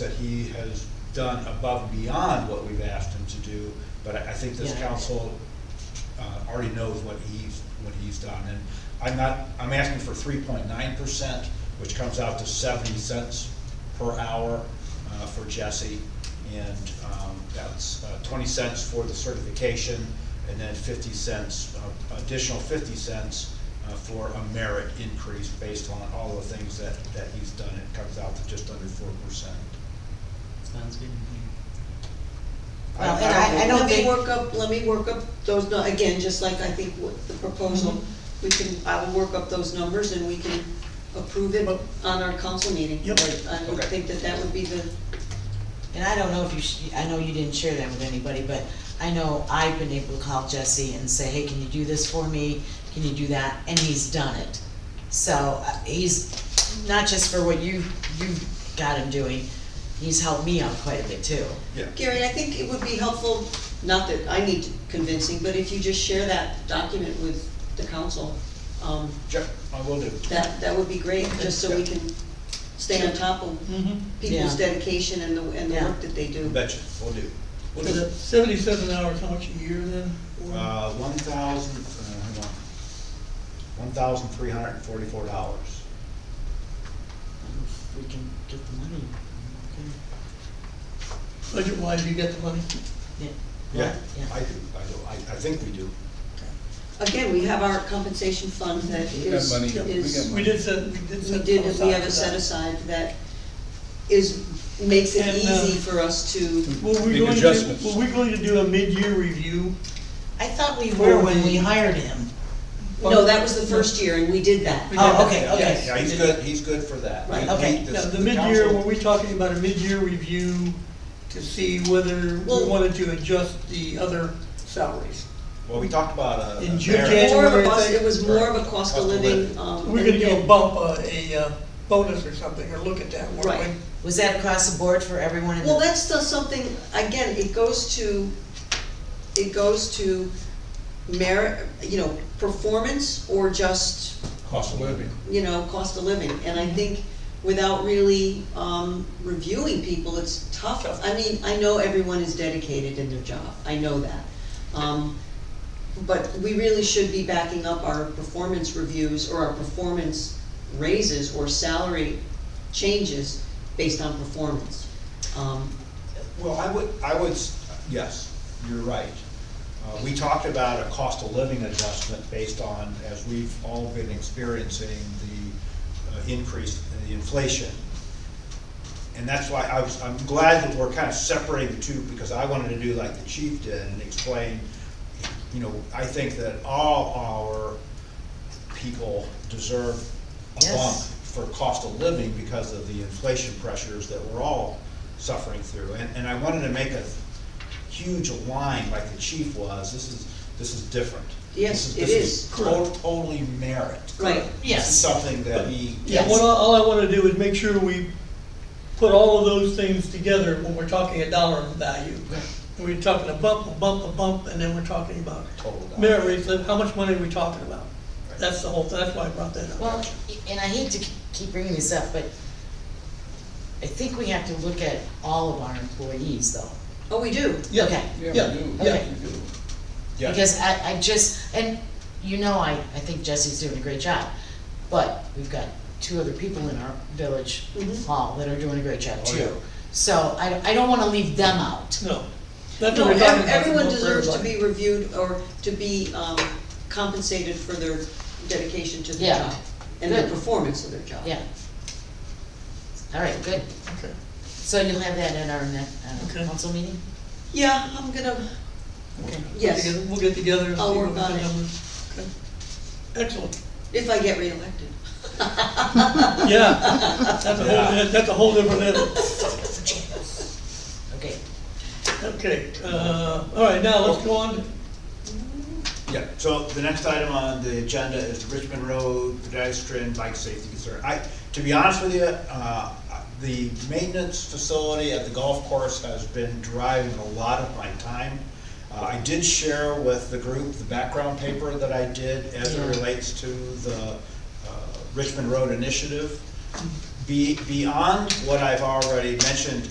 that he has done above and beyond what we've asked him to do, but I, I think this Yeah. council, uh, already knows what he's, what he's done, and I'm not, I'm asking for three point nine percent, which comes out to seventy cents per hour, uh, for Jesse, and, um, that's uh, twenty cents for the certification, and then fifty cents, uh, additional fifty cents uh, for a merit increase based on all the things that, that he's done, it comes out to just under four percent. Sounds good. Well, and I, I don't think- Let me work up, let me work up those, nu- again, just like I think with the proposal, we can, I will work up those numbers and we can approve it But- on our council meeting. Yep. I would Okay. think that that would be the, And I don't know if you, sh- I know you didn't share that with anybody, but I know I've been able to call Jesse and say, hey, can you do this for me? Can you do that? And he's done it. So uh, he's, not just for what you, you got him doing, he's helped me out quite a bit too. Yeah, Gary, I think it would be helpful, not that I need convincing, but if you just share that document with the council, um, Jeff, I will do. that, that would be great, just so we can stay on top of people's Yeah. dedication and the, and the Yeah. work that they do. Betcha, will do. Will So do. the seventy-seven hours, how much a year then? Or- Uh, one thousand, uh, hang on, one thousand three hundred and forty-four dollars. If We can get the money. okay. Budget-wise, you get the money? Yeah. I do, I do, I, I think we do. Again, we have our compensation fund that We got is, money. We got is. money. We did set, we did We set. did, some we aside have for a set that. aside that is, makes it And, uh, easy for us to, Were we Big going to, adjustments. were we going to do a mid-year review? I thought we were when we hired him. no, that was the first year and we did that. We did Oh, that, okay, yes. Yeah, okay. he's good, he's good for that. Right, We- we- okay. this- Now, the the mid-year, council- were we talking about a mid-year review to see whether we Well- wanted to adjust the other salaries? Well, we talked about uh, a. a In June, merit. Jan- More of a January, cost, they- it was more of a cost of Cost of living, living. um. We're gonna and- give a bump, uh, a uh, bonus or something, or look at that, weren't Right. we? Was that across the board for everyone in the? Well, that's still something, again, it goes to, it goes to merit, you know, performance or just Cost of living. you know, cost of living, and I think without really, um, reviewing people, it's tough. Tough. I mean, I know everyone is dedicated in their job, I know that. Um, but we really should be backing up our performance reviews or our performance raises or salary changes based on performance. Um, Well, I would, I would, s- yes, you're right. Uh, we talked about a cost of living adjustment based on, as we've all been experiencing, the uh, increase in the inflation. And that's why I was, I'm glad that we're kind of separating the two, because I wanted to do like the chief did and explain, you know, I think that all our people deserve a bump Yes. for cost of living because of the inflation pressures that we're all suffering through. And, and I wanted to make a huge line like the chief was, this is, this is different. Yes, This it This is. is tot- totally merit. Right, This is Yes. something that he, Yeah, what, I- all I wanna do is make sure we put all of those things together when we're talking a dollar value. We're talking a bump, a bump, a bump, and then we're talking about Total dollar. merit rates, like how much money are we talking about? Right. That's the whole, that's why I brought that up. Well, and I hate to keep bringing this up, but I think we have to look at all of our employees though. oh, we do, Yeah, okay. Yeah, Yeah, we do, yeah. Okay. yeah, we do. yeah, Because I, I just, and you know, I, I think Jesse's doing a great job, but we've got two other people in our village Mhm. hall that are doing a great job Oh, yeah. too. So I, I don't wanna leave them out. No. That's No, what we're talking ev- about. everyone for deserves to everybody. be reviewed or to be um, compensated for their dedication to the Yeah. job and their Good. performance of their job. Yeah. All right, good. Okay. So you'll have that at our next, uh, Okay. council meeting? Yeah, I'm gonna, Okay. yes, We'll get together and see I'll what work the on it. numbers. Okay. Excellent. if I get reelected. Yeah, that's a Yeah. whole, that's a whole different level. Okay. Okay, uh, all right, now let's go on. yeah. So the next item on the agenda is the Richmond Road pedestrian bike safety concern. I, to be honest with you, uh, the maintenance facility at the golf course has been driving a lot of my time. Uh, I did share with the group the background paper that I did as it Yeah. relates to the uh, Richmond Road Initiative. be, beyond what I've already mentioned